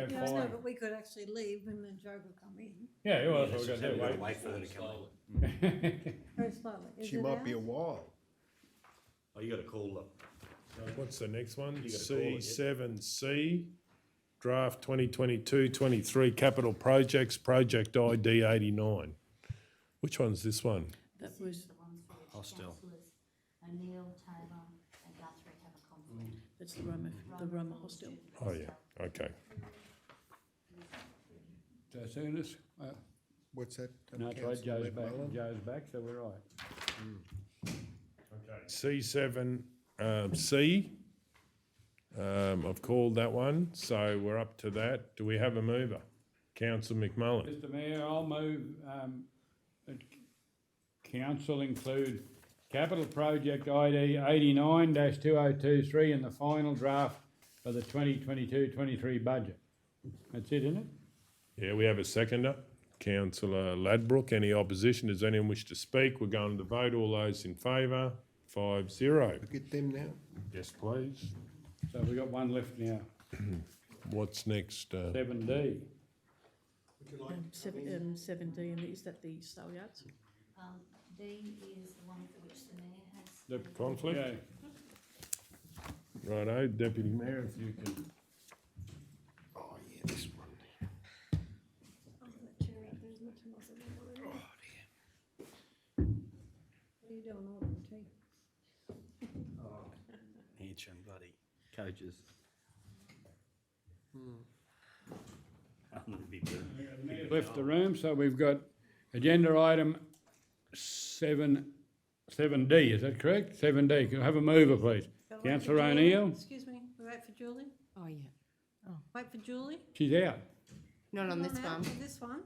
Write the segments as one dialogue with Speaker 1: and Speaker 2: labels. Speaker 1: I know,
Speaker 2: fine.
Speaker 1: but we could actually leave and then Joe could come in
Speaker 2: Yeah, well,
Speaker 3: Yeah,
Speaker 2: that's what
Speaker 3: just
Speaker 2: we're
Speaker 3: have
Speaker 2: gonna
Speaker 3: to
Speaker 2: do,
Speaker 3: Wait for her to come in.
Speaker 2: wait.
Speaker 1: very slowly. Is
Speaker 4: She
Speaker 1: it
Speaker 4: might be a
Speaker 1: ours?
Speaker 4: while.
Speaker 3: Oh, you gotta call them.
Speaker 5: What's the next one?
Speaker 3: You gotta call it, yeah.
Speaker 5: C seven C, draft 2022-23 capital projects, project ID eighty-nine. Which one's this one?
Speaker 6: That was,
Speaker 7: the ones for which
Speaker 3: Hostel.
Speaker 7: councillors O'Neill, Taylor and Guthrie have a conflict.
Speaker 6: Mm. that's the Roma,
Speaker 1: Mm.
Speaker 6: the Roma hostel.
Speaker 5: Oh, yeah, okay.
Speaker 2: So as soon as, uh,
Speaker 4: What's that? um,
Speaker 2: no, it's right,
Speaker 4: Councillor
Speaker 2: Joe's back,
Speaker 4: McMullen?
Speaker 2: Joe's back, so we're right.
Speaker 5: C seven, um, C. Um, I've called that one, so we're up to that. Do we have a mover? Councillor McMullen.
Speaker 2: Mr Mayor, I'll move, um, that c- council include capital project ID eighty-nine two oh two three in the final draft of the 2022-23 budget. That's it, isn't it?
Speaker 5: Yeah, we have a seconder. Councillor Ladbrook, any opposition? Does anyone wish to speak? We're going to vote. All those in favour, five zero.
Speaker 4: Get them now.
Speaker 5: Yes, please.
Speaker 2: So we've got one left now,
Speaker 5: What's next? uh,
Speaker 2: seven D.
Speaker 6: Um, Seven, um, seven D, and is that the sale yards?
Speaker 7: Um, D is the one for which the mayor has. Um,
Speaker 2: The
Speaker 5: Conflict? Righto, Deputy Mayor, if you can.
Speaker 4: Oh, yeah, this one.
Speaker 1: What are you doing ordering tea?
Speaker 3: Oh. Hanson, bloody coaches. Hmm. I'm gonna be burnt.
Speaker 2: Left the room, so we've got agenda item seven, seven D, is that correct? Seven D, can I have a mover, please?
Speaker 1: Gotta wait for
Speaker 2: Councillor
Speaker 1: Julie.
Speaker 2: O'Neill,
Speaker 1: Excuse me, we wait for Julie?
Speaker 8: Oh, yeah.
Speaker 1: Wait for Julie?
Speaker 2: she's out.
Speaker 8: Not on
Speaker 1: Come
Speaker 8: this
Speaker 1: out
Speaker 8: one.
Speaker 1: for This one?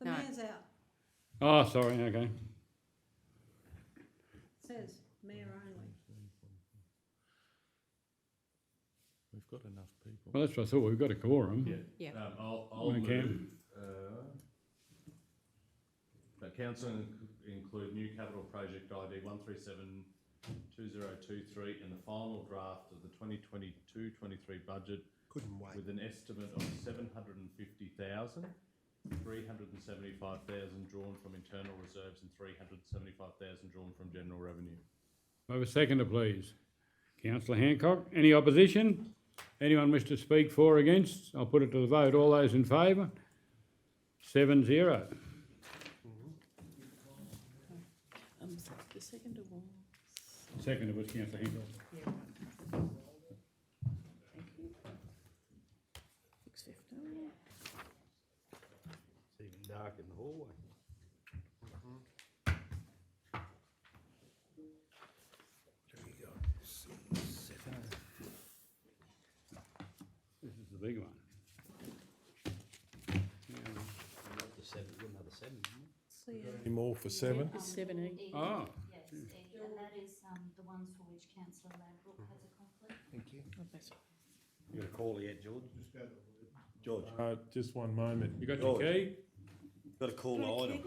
Speaker 1: The
Speaker 8: No.
Speaker 1: mayor's out.
Speaker 2: Oh, sorry, okay.
Speaker 1: Says mayor only.
Speaker 4: We've got enough people.
Speaker 2: Well, that's what I thought, we've got a quorum.
Speaker 8: Yeah.
Speaker 9: Um, I'll, I'll
Speaker 2: Okay.
Speaker 9: move, uh, that council inc- include new capital project ID one three seven two zero two three in the final draft of the 2022-23 budget
Speaker 4: Couldn't wait.
Speaker 9: with an estimate of seven hundred and fifty thousand, three hundred and seventy-five thousand drawn from internal reserves and three hundred and seventy-five thousand drawn from general revenue.
Speaker 2: Have a seconder, please. Councillor Hancock, any opposition? Anyone wish to speak for or against? I'll put it to the vote, all those in favour? Seven zero.
Speaker 6: Um, the second of all.
Speaker 2: Seconder was councillor Hancock.
Speaker 6: Thank you. Six fifteen.
Speaker 3: It's even dark in the hallway.
Speaker 2: This is the big one.
Speaker 3: The seven, another seven, isn't it?
Speaker 1: So, yeah.
Speaker 5: Any more for seven?
Speaker 7: Um,
Speaker 6: Seven E.
Speaker 7: E,
Speaker 2: Ah.
Speaker 7: Yes, E, and that is, um, the ones for which councillor Ladbrook has a conflict.
Speaker 4: Thank you.
Speaker 6: Oh, that's-
Speaker 3: You gotta call yet, George? George, you
Speaker 5: Uh, just one moment.
Speaker 2: You got your key?
Speaker 3: gotta call the item.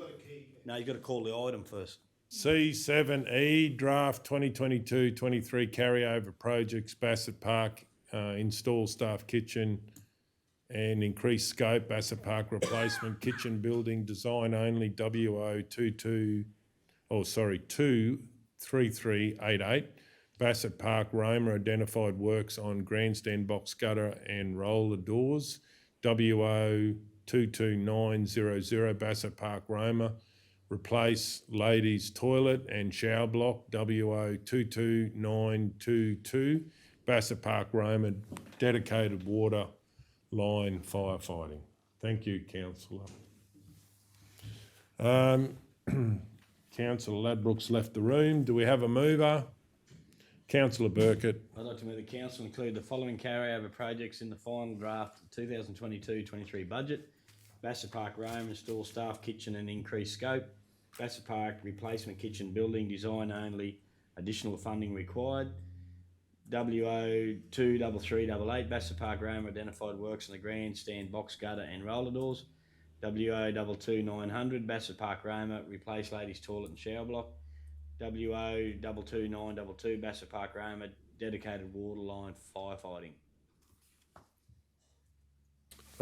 Speaker 3: No, you gotta call the item first.
Speaker 5: C seven E, draft 2022-23 carryover projects, Bassett Park, uh, install staff kitchen and increased scope, Bassett Park replacement, kitchen building, design only, W O two two, oh, sorry, two, three, three, eight, eight. Bassett Park, Roma identified works on grandstand box gutter and roller doors. W O two two nine zero zero, Bassett Park, Roma. Replace ladies toilet and shower block, W O two two nine two two, Bassett Park, Roma, dedicated water line firefighting. Thank you, councillor. Um, councillor Ladbrokes left the room. Do we have a mover? Councillor Burkett,
Speaker 3: I'd like to move the council include the following carryover projects in the final draft of 2022-23 budget. Bassett Park Rome install staff kitchen and increased scope. Bassett Park replacement kitchen building design only, additional funding required. WO two double three double eight Bassett Park Rome identified works on the grandstand box gutter and roller doors. WO double two nine hundred Bassett Park Roma replace ladies toilet and shower block. WO double two nine double two Bassett Park Roma dedicated water line firefighting.